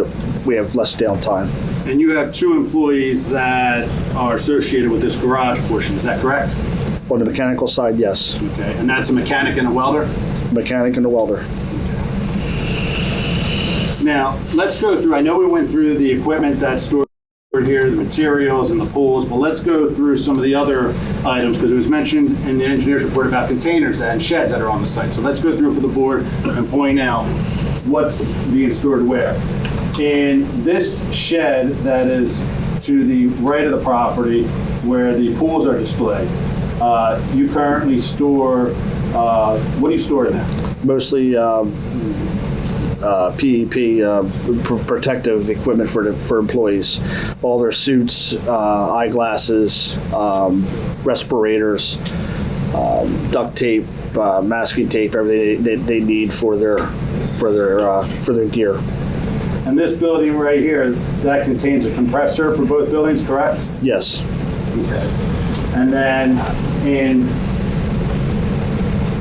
that we have less downtime. And you have two employees that are associated with this garage portion, is that correct? On the mechanical side, yes, Okay, and that's a mechanic and a welder? mechanic and the welder. Now, let's go through, I know we went through the equipment that's stored here, the materials and the pools, but let's go through some of the other items, because it was mentioned in the engineer's report about containers and sheds that are on the site. So let's go through for the board and point out what's being stored where. In this shed that is to the right of the property where the pools are displayed, uh, you currently store, uh, what do you store in there? Mostly um, uh, PEP, uh, pr- protective equipment for the, for employees. All their suits, uh, eyeglasses, um, respirators, um, duct tape, uh, masking tape, everything they, they, they need for their for their uh, for their gear. And this building right here, that contains a compressor for both buildings, correct? Yes, And then in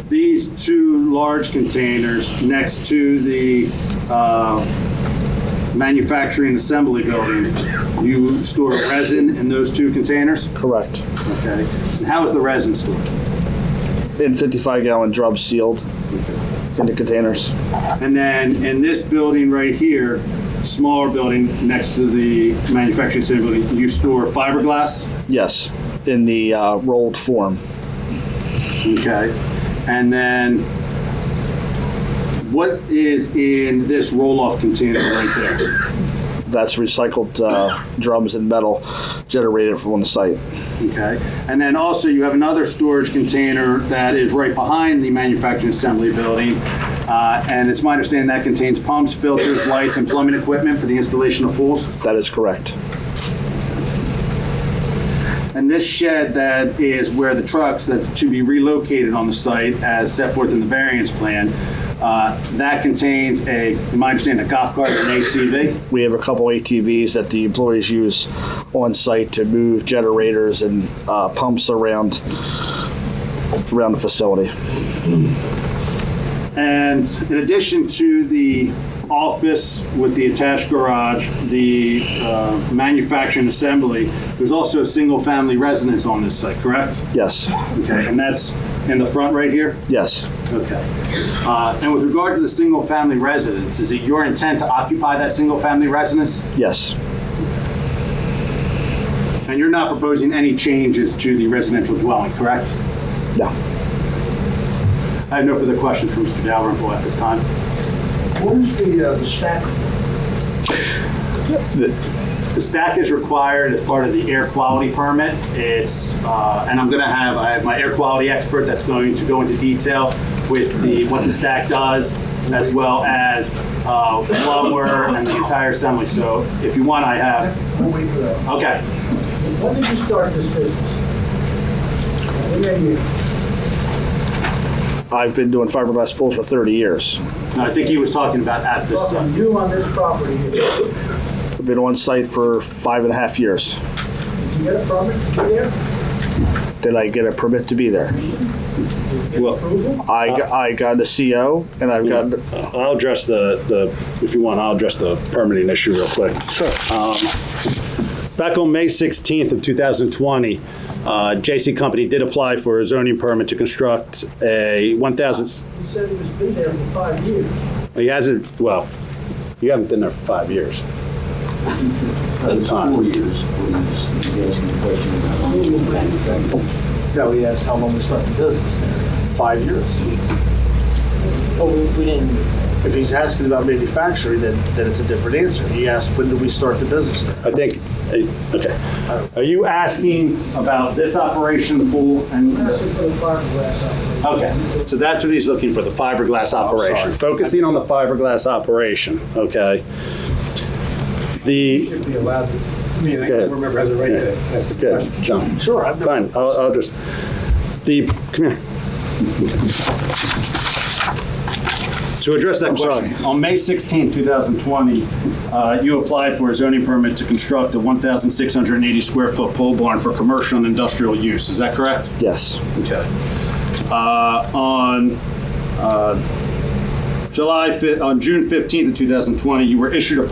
these two large containers next to the uh, manufacturing assembly building, you store resin in those two containers? correct. Okay. And how is the resin stored? In 55 gallon drums sealed in the containers. And then in this building right here, smaller building next to the manufacturing assembly, building, you store fiberglass? Yes, in the uh, rolled form. Okay, and then what is in this roll-off container right there? That's recycled uh, drums and metal generated from the site. Okay, and then also you have another storage container that is right behind the manufacturing assembly building. Uh, and it's my understanding that contains pumps, filters, lights, and plumbing equipment for the installation of pools. That is correct. And this shed that is where the trucks that to be relocated on the site as set forth in the variance plan, uh, that contains a, in my understanding, a golf cart and an ATV. We have a couple ATVs that the employees use on site to move generators and uh, pumps around around the facility. And in addition to the office with the attached garage, the uh, manufacturing assembly, there's also a single-family residence on this site, correct? Yes, Okay, and that's in the front right here? yes, Okay. Uh, And with regard to the single-family residence, is it your intent to occupy that single-family residence? yes, And you're not proposing any changes to the residential dwelling, correct? no. I have no further questions for Mr. Dalrymple at this time. What is the, uh, the stack? The stack is required as part of the air quality permit. It's, uh, and I'm gonna have, I have my air quality expert that's going to go into detail with the, what the stack does, as well as uh, lumber and the entire assembly. So if you want, I have, We'll wait for that. okay. When did you start this business? When did you- I've been doing fiberglass pools for 30 years. No, I think he was talking about at this uh, site. From you on this property, did you I've been on site for five and a half years. get a permit to be there? Did I get a permit to be there? Well- Approval? I, Uh, got- I got a CO and I've got I'll address the, the, if you want, I'll address the permitting issue real quick. Sure. Back on May 16th of 2020, uh, J.C. Company did apply for a zoning permit to construct a 1,000, You said it was been there for five years. he hasn't, well, you haven't been there for five years. At the time. Four years, when he's he's asking the question about how long the manufacturing. No, he asked how long we started business. five years. Oh, we didn't. If he's asking about manufacturing, then, then it's a different answer. He asked, when do we start the business Oh. there? I think, eh, okay. Are you asking about this operation, the pool, and? Asked for the fiberglass out Okay. So that's what he's looking for, the fiberglass operation. Focusing on the fiberglass operation, okay? The, Should be allowed to. I mean, I Go ahead. remember as a right to ask the yeah, John. Sure, I've Fine, I'll, I'll just, the, come here. To address that question, On May 16, 2020, uh, you applied for a zoning permit to construct a 1,680 square foot pole barn for commercial and industrial use. Is that correct? Yes, Okay. Uh, On uh, July, fi- on June 15, 2020, you were issued a